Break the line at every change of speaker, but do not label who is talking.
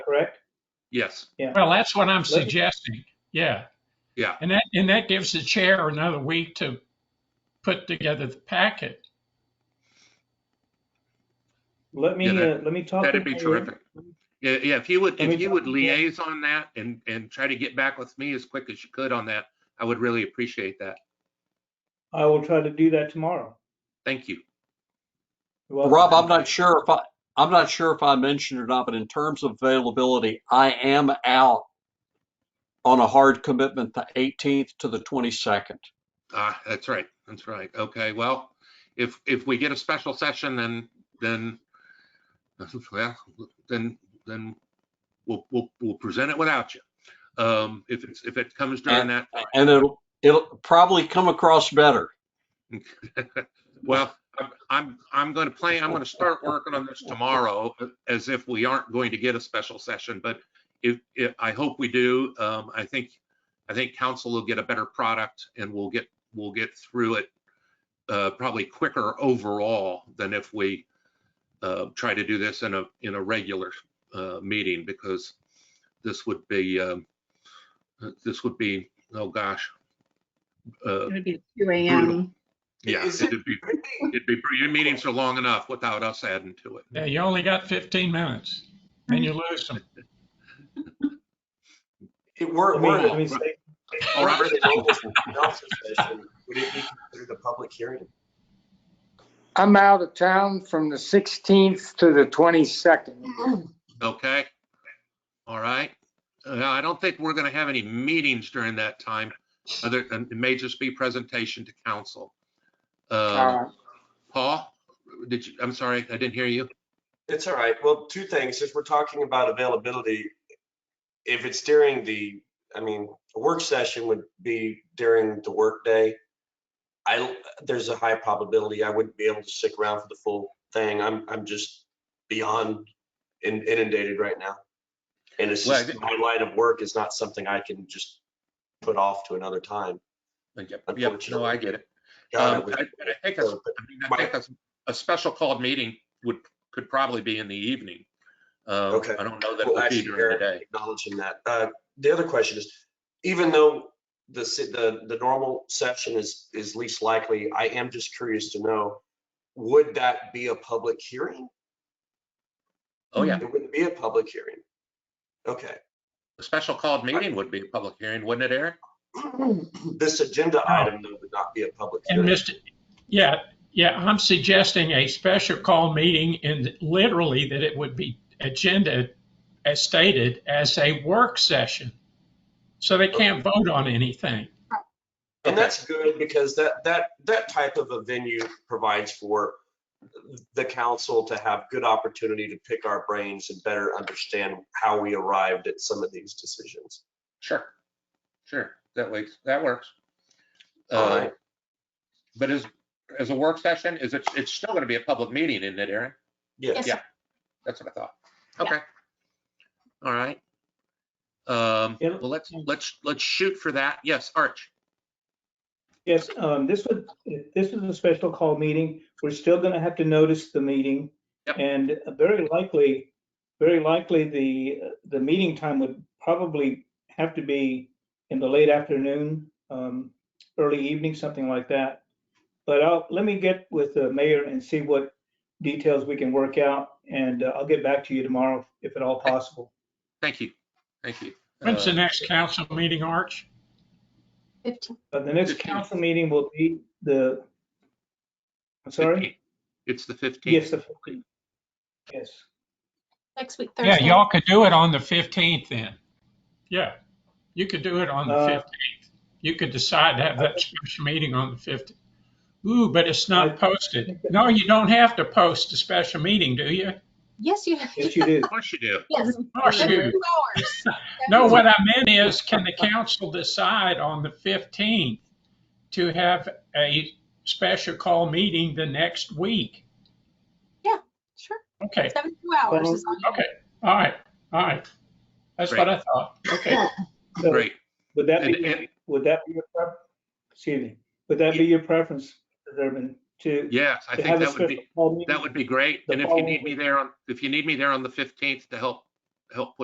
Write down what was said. correct?
Yes,
Well, that's what I'm
Let-
suggesting, yeah.
Yeah.
And that, and that gives the chair another week to put together the packet.
Let me,
Yeah, that-
uh, let me talk.
that'd
to
be
Mayor.
terrific. Yeah, yeah, if you would,
Let me
if you would
talk to Mayor.
liaise on that and, and try to get back with me as quick as you could on that, I would really appreciate that.
I will try to do that tomorrow.
Thank you.
You're welcome.
Rob, I'm not sure if I, I'm not sure if I mentioned or not, but in terms of availability, I am out on a hard commitment the 18th to the 22nd.
Ah, that's right, that's right. Okay, well, if, if we get a special session, then, then, well, then, then we'll, we'll, we'll present it without you. Um, if it's, if it comes during that,
And it'll, it'll probably come across better.
Well, I'm- I'm, I'm going to plan, I'm going to start working on this tomorrow as if we aren't going to get a special session, but if, if, I hope we do. Um, I think, I think council will get a better product and we'll get, we'll get through it uh, probably quicker overall than if we uh, try to do this in a, in a regular uh, meeting because this would be, um, this would be, oh gosh. uh,
It would be two
Brutal.
AM.
Yeah,
Is
it'd be, it'd be, your meetings are long enough without us adding to it.
Yeah, you only got 15 minutes and you lose them.
It were,
Let me-
were
let me
it
say-
All
were
right.
it an open council session, would it be considered a public hearing?
I'm out of town from the 16th to the 22nd.
Okay? All right. Uh, I don't think we're going to have any meetings during that time. Other, and it may just be presentation to council. Uh,
Uh,
Paul, did you, I'm sorry, I didn't hear you.
It's all right. Well, two things. If we're talking about availability, if it's during the, I mean, a work session would be during the workday. I, there's a high probability I wouldn't be able to stick around for the full thing. I'm, I'm just beyond in- inundated right now. And it's
Well, I
just,
did-
my line of work is not something I can just put off to another time.
Yeah, no, I get it.
God, I
Um,
wish-
I I think, a- I mean, I think a- a special called meeting would, could probably be in the evening. Uh,
Okay.
I don't know that it
Well,
would be
actually,
during the
Eric,
day.
acknowledging that. Uh, The other question is, even though the, si- the, the normal session is, is least likely, I am just curious to know, would that be a public hearing?
Oh, yeah.
It wouldn't be a public hearing. Okay.
A special called meeting would be a public hearing, wouldn't it, Eric?
This agenda item though would not be a public
And
hearing.
Mr., yeah, yeah, I'm suggesting a special call meeting and literally that it would be agenda as stated as a work session. So they can't vote on anything.
And that's good because that, that, that type of a venue provides for the council to have good opportunity to pick our brains and better understand how we arrived at some of these decisions.
Sure. Sure, that works, that works.
All
Uh,
right.
But as, as a work session, is it, it's still gonna be a public meeting, isn't it, Aaron?
Yes.
Yeah. That's what I thought.
Yeah.
Okay. All right. Um,
Yeah.
well, let's, let's, let's shoot for that. Yes, Arch.
Yes, um, this would, this is a special call meeting. We're still gonna have to notice the meeting.
Yep.
And very likely, very likely, the, the meeting time would probably have to be in the late afternoon, um, early evening, something like that. But I'll, let me get with the mayor and see what details we can work out, and uh, I'll get back to you tomorrow if at all possible.
Thank you. Thank you.
When's the
Uh,
next council meeting, Arch?
Fifteen.
But the next
Fifteenth.
council meeting will be the, I'm sorry?
15th. It's the
Yes,
15th.
the 14th. Yes.
Next week,
Yeah,
Thursday.
y'all could do it on the 15th then. Yeah, you could do it on the
Uh,
15th. You could decide to have that special meeting on the 15th. Ooh, but it's
I-
not posted. No, you don't have to post a special meeting, do you?
Yes, you.
Yes, you do.
Of course you do.
Yes.
course you
Two
do.
hours.
No, what I meant is, can the council decide on the 15th to have a special call meeting the next week?
Sure,
Okay,
seventy-two hours is all.
okay, all right, all right. That's what I thought. Okay,
So,
Great.
Would that
And-
be,
and-
would that be your, pref- excuse me, would that be your preference, Mr. Durbin, to?
Yes,
to
I think
have a
that would
special
be,
call meeting?
that would be great.
The
And if you
following
need me
week.
there on, if you need me there on the 15th to help, help put